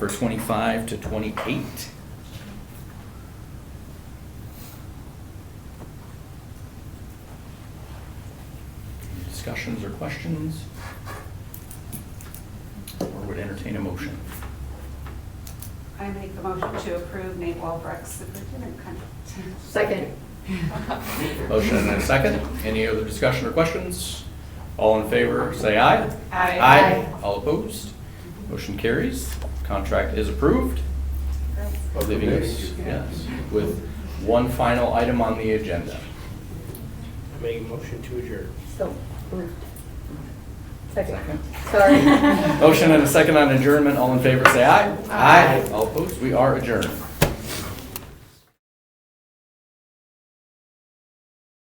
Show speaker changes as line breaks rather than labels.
for 25 to 28. Discussions or questions? Or would entertain a motion.
I make the motion to approve Nate Walbrecht's superintendent contract.
Second.
Motion and a second. Any other discussion or questions? All in favor, say aye.
Aye.
All opposed? Motion carries. Contract is approved. leaving us, yes, with one final item on the agenda.
I make a motion to adjourn.
So moved. Second.
Second.
Sorry.
Motion and a second on adjournment, all in favor, say aye. Aye. All opposed, we are adjourned.